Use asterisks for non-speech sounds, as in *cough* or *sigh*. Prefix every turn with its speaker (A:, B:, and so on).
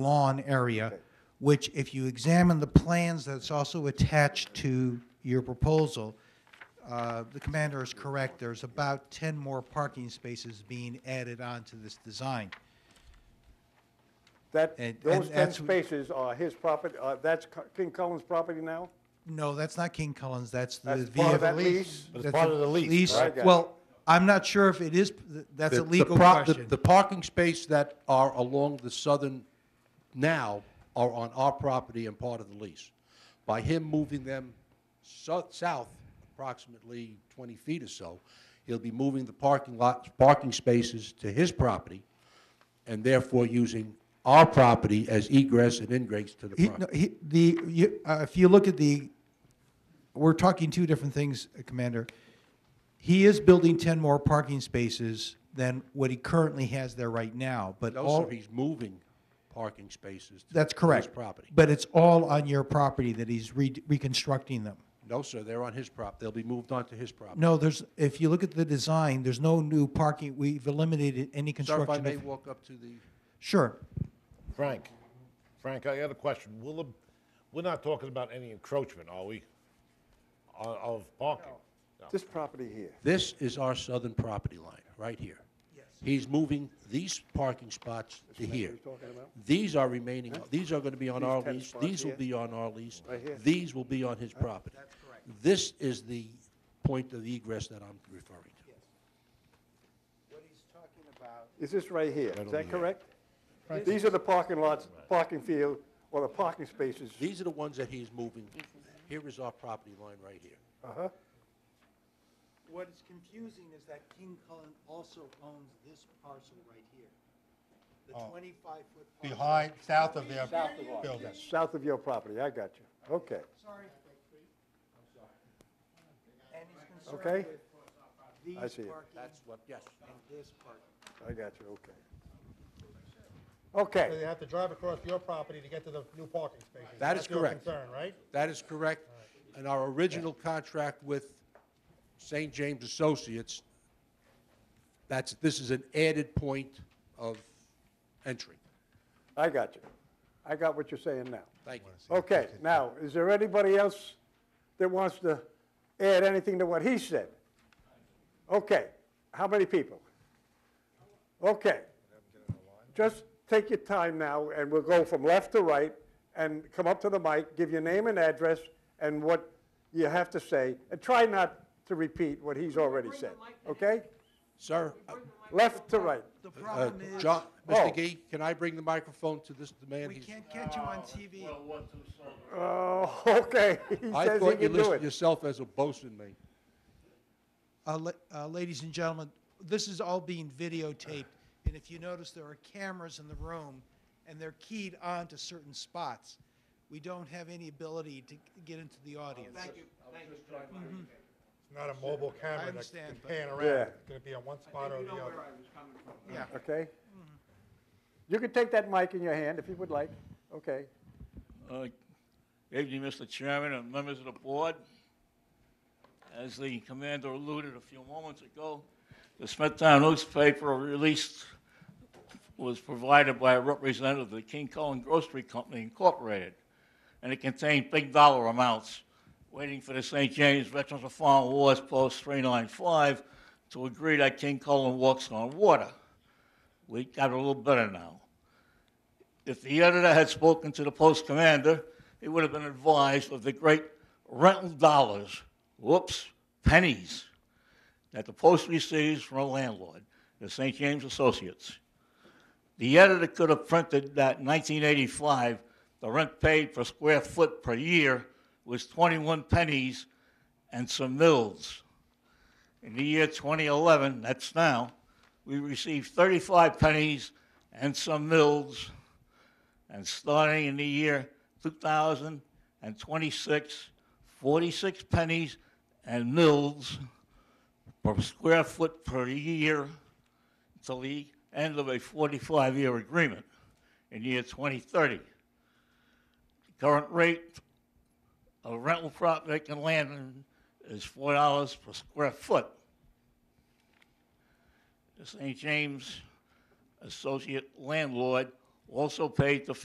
A: lawn area, which if you examine the plans that's also attached to your proposal, uh, the commander is correct, there's about 10 more parking spaces being added on to this design.
B: That,
A: And- and
B: those 10
A: that's-
B: spaces are his property, uh, that's Co- King Cullen's property now?
A: No, that's not King Cullen's, that's the
B: That's part of
A: VFW.
B: that lease?
C: But it's
A: That's
C: part
A: a
C: of the lease,
B: right? Yeah.
A: Well, I'm not sure if it is, that's a
C: The- the
A: legal
C: pro- the-
A: question.
C: The parking space that are along the southern now are on our property and part of the lease. By him moving them so- south approximately 20 feet or so, he'll be moving the parking lot, parking spaces to his property, and therefore using our property as egress and ingress to the
A: He-
C: property.
A: no, he- The, you- uh, if you look at the, we're talking two different things, uh, Commander. He is building 10 more parking spaces than what he currently has there right now, but
C: Also,
A: all,
C: he's moving parking spaces to
A: that's
C: his
A: correct.
C: property.
A: But it's all on your property that he's re- reconstructing them.
C: No, sir, they're on his prop, they'll be moved onto his property.
A: No, there's, if you look at the design, there's no new parking, we've eliminated any
C: Sir, if I
A: construction
C: may
A: of.
C: walk up to the...
A: Sure.
D: Frank, Frank, I got a question. Will the, we're not talking about any encroachment, are we? Of, of parking? No.
B: This property here.
C: This is our southern property line, right here. Yes. He's moving these parking spots to here. These are remaining, these are going to be on
B: These
C: our
B: 10
C: lease,
B: spots
C: these will
B: here?
C: be on our lease,
B: Right here.
C: these will be on his property. That's correct. This is the point of egress that I'm referring to.
B: Is this right here? Is that correct? These are the parking lots, parking field, or the parking spaces.
C: These are the ones that he's moving. Here is our property line right here.
B: uh-huh.
A: What is confusing is that King Cullen also owns this parcel right here, the
C: Oh.
A: 25-foot
E: behind, south of their building.
B: South of your property, I got you. Okay,
A: Sorry. And he's
B: okay?
A: concerned with these
B: I see it.
A: parking
C: That's what, yes.
A: and this parking.
B: I got you, okay.
E: So
B: Okay,
E: they have to drive across your property to get to the new parking spaces.
C: That is
E: That's your
C: correct.
E: concern, right?
C: That is correct. And our original contract with St. James Associates, that's, this is an added point of entry.
B: I got you. I got what you're saying now.
C: Thank you.
B: Okay, now, is there anybody else that wants to add anything to what he said? Okay, how many people? Okay. Just take your time now, and we'll go from left to right, and come up to the mic, give your name and address, and what you have to say, and try not to repeat what he's already said, okay?
C: Sir, uh,
B: Left to right.
A: The
C: uh,
A: problem is,
C: John,
B: Oh.
C: Mr. Gee, can I bring the microphone to this man?
A: we
C: He's-
A: can't catch you on TV.
B: Oh, *laughs* okay, he
C: I
B: says he
C: thought you
B: can do
C: listed
B: it.
C: yourself as a bosun, mate.
A: Uh, la- uh, Ladies and gentlemen, this is all being videotaped, and if you notice, there are cameras in the room, and they're keyed on to certain spots. We don't have any ability to get into the audience.
E: It's not a mobile camera that can
A: understand, but-
E: pan around.
B: Yeah.
E: It's gonna be on one spot or the other.
A: Yeah.
B: okay? You can take that mic in your hand if you would like, okay?
F: Uh, Evening, Mr. Chairman and members of the board. As the commander alluded a few moments ago, the Smithtown newspaper released was provided by a representative of the King Cullen Grocery Company Incorporated, and it contained big dollar amounts waiting for the St. James Veterans of Foreign Wars Post 395 to agree that King Cullen walks on water. We got a little better now. If the editor had spoken to the post commander, he would have been advised of the great rental dollars, whoops, pennies, that the post receives from a landlord, the St. James Associates. The editor could have printed that in 1985, the rent paid per square foot per year was 21 pennies and some mills. In the year 2011, that's now, we received 35 pennies and some mills and starting in the year 2026, 46 pennies and mills per square foot per year until the end of a 45-year agreement in year 2030. The current rate of rental prop vacant land is $4 per square foot. The St. James associate landlord also paid the